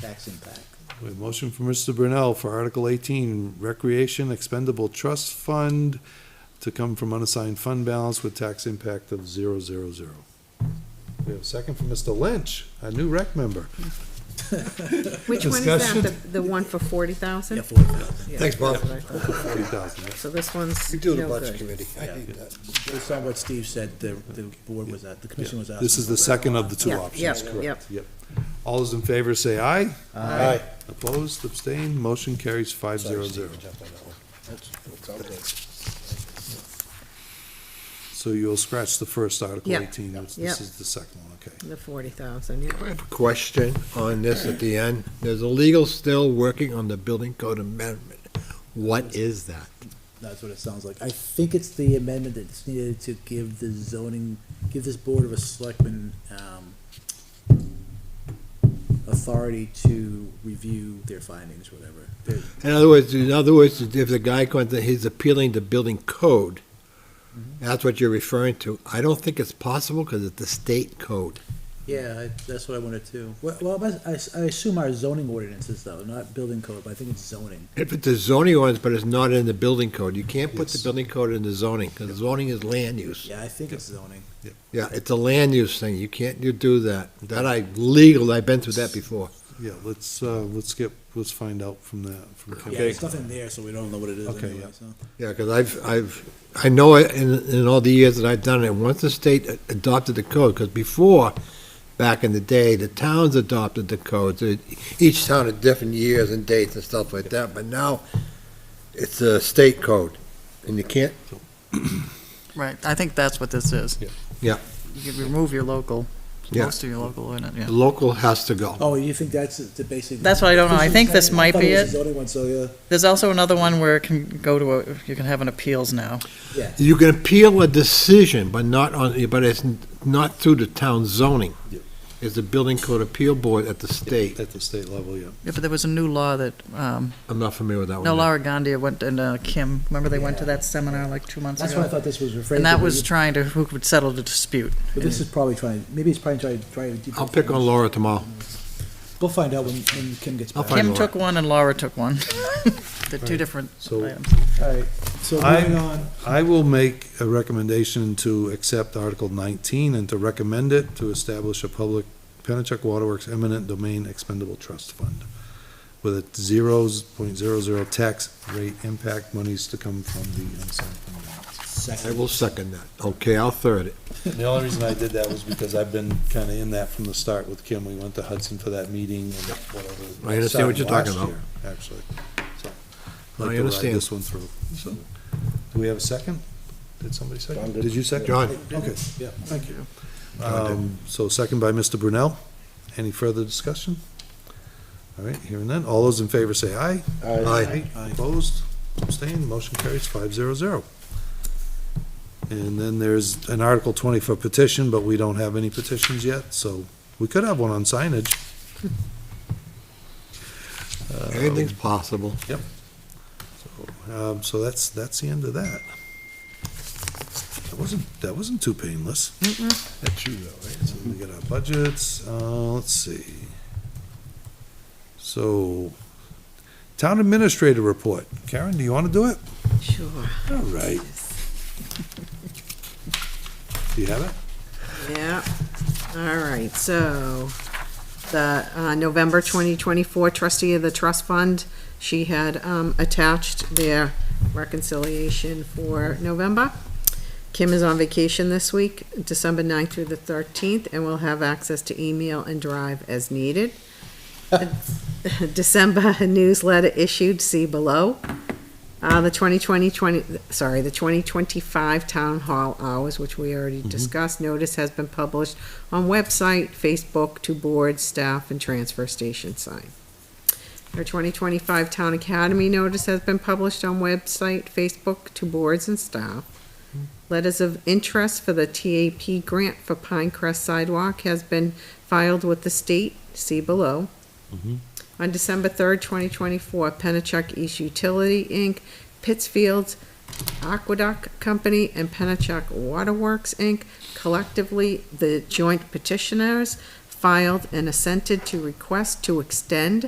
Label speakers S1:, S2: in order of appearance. S1: tax impact.
S2: We have a motion for Mr. Brunell for Article eighteen, Recreation Expendable Trust Fund to come from unassigned fund balance with tax impact of zero, zero, zero. We have a second from Mr. Lynch, a new rec member.
S3: Which one is that, the,
S2: Discussion?
S3: the one for forty thousand?
S1: forty thousand.
S4: Thanks, Bob.
S2: Forty thousand.
S3: So this one's
S4: You do the
S3: no
S4: budget
S3: good.
S4: committee. I need that.
S1: Based on what Steve said, the, the board was at, the commission was asking.
S2: This is the
S1: for-
S2: second of the two
S3: Yeah, yeah,
S2: options,
S3: yeah.
S2: correct? Yep. All those in favor say aye.
S4: Aye.
S2: Opposed, abstained, motion carries five zero zero. So you'll scratch the first Article
S3: Yeah.
S2: eighteen, this
S3: Yeah.
S2: this is the second one, okay.
S3: The forty thousand, yeah.
S4: I have a question on this at the end. There's a legal still working on the building code amendment. What is that?
S1: That's what it sounds like. I think it's the amendment that's needed to give the zoning, give this board of a selectmen, um, authority to review their findings, whatever. They're-
S4: In other words, in other words, if the guy comes, in, he's appealing the building code, that's what you're referring to. I don't think it's possible because it's the state code.
S1: Yeah, I- that's what I wanted to. Well, well, I- I, I assume our zoning ordinances though, not building code, but I think it's zoning.
S4: If it's the zoning ones, but it's not in the building code, you can't put the
S2: Yes.
S4: building code in the zoning because zoning is land use.
S1: Yeah, I think it's zoning.
S4: Yeah, it's a land use thing. You can't, you do that. That I legal, I've been through that before.
S2: Yeah, let's, uh, let's get, let's find out from that, from Kim.
S1: Yeah, there's nothing there, so we don't know what it is
S2: Okay,
S1: anyway,
S2: yeah.
S1: so.
S4: Yeah, because I've, I've, I know it in, in all the years that I've done it, once the state a- adopted the code, because before, back in the day, the towns adopted the codes. It- Each town had different years and dates and stuff like that, but now it's a state code, and you can't,
S5: Right, I think that's what this is.
S2: Yeah.
S4: Yeah.
S5: You could remove your local,
S4: Yeah.
S5: most of your local in it,
S4: the
S5: yeah.
S4: local has to go.
S1: Oh, you think that's the basic?
S5: That's what I don't know. I think this might
S1: thought
S5: be
S1: was
S5: it.
S1: the zoning one, so yeah,
S5: There's also another one where it can go to, a you can have an appeals now.
S1: yeah.
S4: You can appeal a decision, but not on, but it's not through the town zoning.
S2: Yep.
S4: It's the building code appeal board at the state.
S2: At the state level, yeah.
S5: Yeah, but there was a new law that, um,
S4: I'm not familiar with that one.
S5: no,
S4: yet.
S5: Laura Gandia went, and uh, Kim, remember they went to
S1: Yeah.
S5: that seminar like two months
S1: That's what I
S5: ago?
S1: thought this was referring to.
S5: And that
S1: but
S5: was
S1: you-
S5: trying to, who could settle the dispute.
S1: But this is probably trying, maybe it's probably trying, trying to.
S4: I'll pick on Laura tomorrow.
S1: We'll find out when, when Kim gets
S4: I'll
S1: back.
S4: find-
S5: Kim
S4: Laura.
S5: took one and Laura took one. They're two
S2: Right.
S5: different
S2: So-
S5: items.
S1: All right, so
S2: I-
S1: moving on.
S2: I will make a recommendation to accept Article nineteen and to recommend it to establish a public Pennachuck Waterworks eminent domain expendable trust fund with a zero point zero zero tax rate impact monies to come from the unassigned fund balance.
S4: I will second that. Okay, I'll third it.
S2: The only reason I did that was because I've been kinda in that from the start with Kim. We went to Hudson for that meeting and whatever.
S4: I understand what you're talking
S2: Last
S4: about.
S2: year, Actually, so.
S4: I
S2: I'd like to ride
S4: understand.
S2: This one through, so. Do we have a second? Did somebody second? Did you second?
S4: John.
S2: Okay, yeah, thank you. Um, so second by Mr. Brunell. Any further discussion? All right, hearing none. All those in favor say aye.
S4: Aye.
S2: Opposed, abstained, motion carries five zero zero. And then there's an Article twenty for petition, but we don't have any petitions yet, so we could have one on signage.
S4: Anything's possible.
S2: Um, so that's, that's the end of that. That wasn't, that wasn't too painless.
S4: That's true, though,
S2: So we got our budgets, uh, let's see. So, town administrator report. Karen, do you wanna do it?
S3: Sure.
S2: All right. Do you have it?
S3: Yeah, all right, so the uh, November 2024 trustee of the trust fund, she had um, attached their reconciliation for November. Kim is on vacation this week, December 9th through the 13th, and will have access to email and drive as needed. December newsletter issued, see below. Uh, the 2020, 20 sorry, the 2025 Town Hall hours, which we already discussed, notice has been published on website, Facebook, to board, staff, and transfer station sign. Our 2025 Town Academy notice has been published on website, Facebook, to boards and staff. Letters of interest for the TAP grant for Pinecrest Sidewalk has been filed with the state, see below. On December 3rd, 2024, Pennachuck East Utility, Inc., Pittsfield's Aqueduct Company, and Pennachuck Waterworks, Inc., collectively the joint petitioners filed and assented to request to extend